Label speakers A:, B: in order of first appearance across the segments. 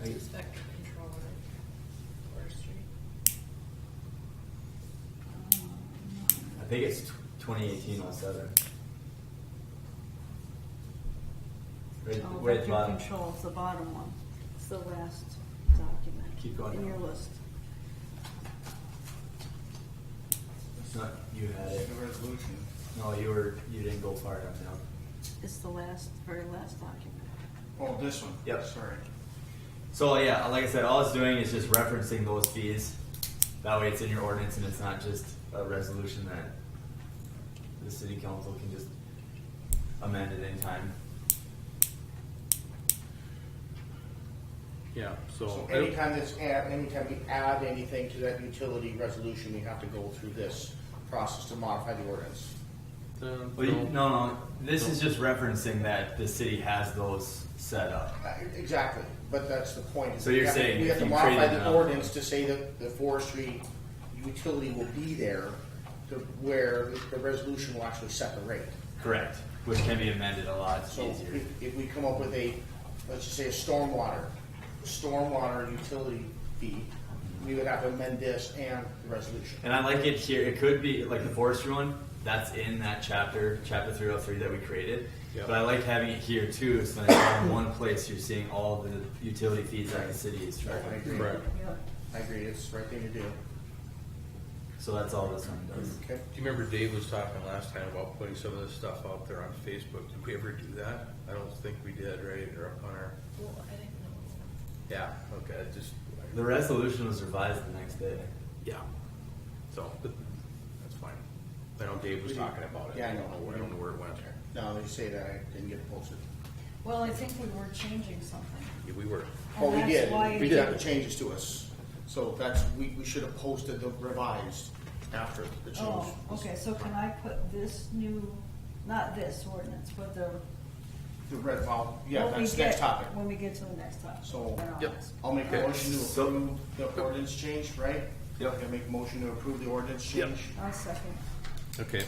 A: Are you-
B: Vector controller, forestry.
C: Oh,
A: I think it's twenty eighteen oh seven. Red,
C: Oh,
A: red
C: vector
A: button.
C: control's the bottom one. It's the last document.
A: Keep going
C: In
A: down.
C: your list.
A: It's not, you had it.
D: The resolution.
A: No, you were, you didn't go far enough down.
C: It's the last, very last document.
D: Oh, this one?
A: Yep.
D: Sorry.
A: So yeah, like I said, all it's doing is just referencing those fees. That way it's in your ordinance and it's not just a resolution that the city council can just amend at any time.
E: Yeah, so.
F: So anytime this add, anytime we add anything to that utility resolution, we have to go through this process to modify the ordinance.
E: Um,
F: Oh,
A: Well, you, no, no, this is just referencing that the city has those set up.
F: Uh, Exactly, but that's the point.
A: So you're
F: We have to-
A: saying
F: We have
A: if
F: to
A: you
F: modify
A: created
F: the
A: another-
F: ordinance to say that the forestry utility will be there to where the resolution will actually set the rate.
A: Correct. Which can be amended a lot
F: So
A: easier.
F: if, if we come up with a, let's just say a stormwater, stormwater utility fee, we would have to amend this and the resolution.
A: And I like it here. It could be like the forestry one. That's in that chapter, chapter three hundred three that we created.
E: Yeah.
A: But I like having it here too, so that in one place you're seeing all the utility fees that the city is
F: I
A: charging.
F: agree.
E: Correct.
F: I agree, it's the right thing to do.
A: So that's all this one does.
F: Okay.
G: Do you remember Dave was talking last time about putting some of this stuff out there on Facebook? Did we ever do that? I don't think we did, right? Or up on our,
B: Well, I didn't know.
G: yeah, okay, I just,
A: The resolution was revised the next day.
G: yeah. So, that's fine. I know Dave was talking about it.
F: Yeah, I know.
G: I don't know where it went.
F: No, they say that I didn't get it posted.
B: Well, I think we were changing something.
G: Yeah, we were.
F: Well, Oh, we
B: that's
F: did,
B: why
F: we
B: it-
F: got the changes to us. So that's, we, we should have posted the revised after the change.
C: Oh, okay, so can I put this new, not this ordinance, but the.
F: The red, well, yeah,
C: when we
F: that's
C: get-
F: next topic.
C: When we get to the next topic.
F: So,
C: then I'll
G: Yep.
C: ask.
F: I'll make a
G: Okay.
F: motion to
A: So-
F: approve the ordinance change, right?
A: Yep.
F: I'll make a motion to approve the ordinance change.
C: I'll second.
G: Okay.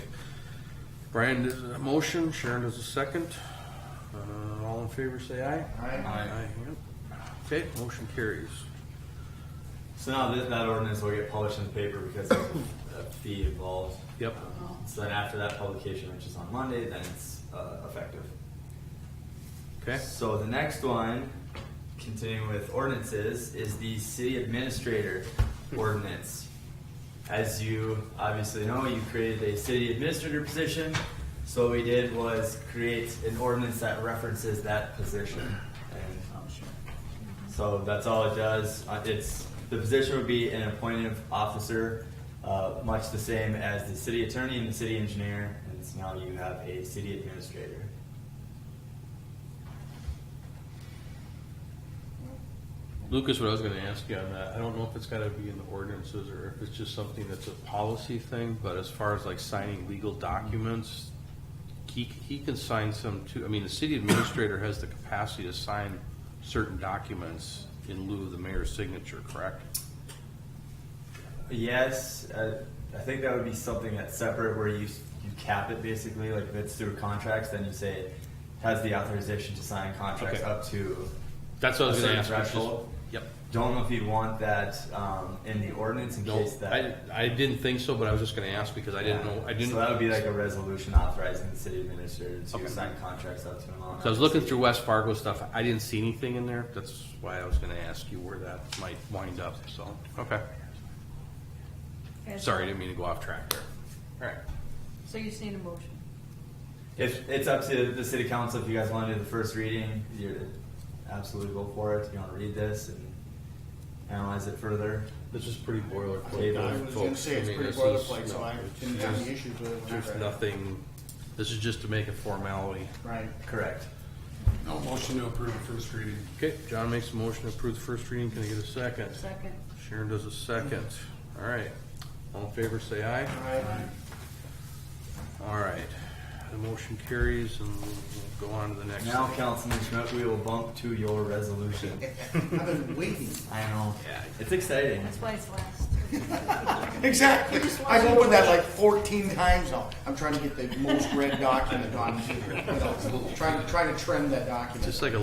G: Brian does a motion, Sharon does a second. Uh, all in favor, say aye.
F: Aye.
G: yep. Okay, motion carries.
A: So now that, that ordinance will get published in the paper because there's a a fee involved.
G: Yep.
A: Um, So then after that publication, which is on Monday, then it's, uh, effective.
G: Okay?
A: So the next one, continuing with ordinances, is the city administrator ordinance. As you obviously know, you created a city administrator position. So what we did was create an ordinance that references that position. And um,
C: Oh, sure.
A: so that's all it does. Uh, It's, the position would be an appointed officer, uh, much the same as the city attorney and the city engineer. And so now you have a city administrator.
G: Lucas, what I was gonna ask you on that, I don't know if it's gotta be in the ordinances or if it's just something that's a policy thing, but as far as like signing legal documents, he, he can sign some too, I mean, the city administrator has the capacity to sign certain documents in lieu of the mayor's signature, correct?
A: Yes, uh, I think that would be something that's separate where you, you cap it basically, like if it's through contracts, then you say has the authorization to sign contracts
G: Okay.
A: up to.
G: That's what I was
A: a
G: gonna ask.
A: certain
G: which is-
A: threshold.
G: Yep.
A: Don't know if you'd want that, um, in the ordinance in
G: No,
A: case
G: I,
A: that.
G: I didn't think so, but I was just gonna ask because I didn't know, I didn't.
A: So that would be like a resolution authorizing the city administrator
G: Okay.
A: to sign contracts up to an amount.
G: So I was looking through West Fargo stuff. I didn't see anything in there. That's why I was gonna ask you where that might wind up, so, okay.
C: Okay.
G: Sorry, didn't mean to go off track there. Alright.
C: So you just need a motion.
A: If, it's up to the city council, if you guys wanna do the first reading, you're absolutely go for it, if you wanna read this and analyze it further.
G: This is pretty boilerplate.
A: Okay,
F: I was gonna
G: folks.
F: say it's
G: I mean,
F: pretty
G: this is-
F: boilerplate, so I didn't have any issues with it. when I
G: There's
F: read it.
G: nothing, this is just to make a formality.
F: Right.
A: Correct.
D: No, motion to approve the first reading.
G: Okay, John makes a motion to approve the first reading. Can I get a second?
C: Second.
G: Sharon does a second. Alright. All in favor, say aye.
F: Aye.
G: Alright. The motion carries and we'll go on to the next.
A: Now,
G: thing.
A: Councilman Schmidt, we will bump to your resolution.
F: I've been waiting.
A: I know.
G: Yeah.
A: It's exciting.
C: That's why it's last.
F: Exactly. I've opened that like fourteen times now. I'm trying to get the most read document on here. you know, Trying, trying to trim that document.
G: Just like a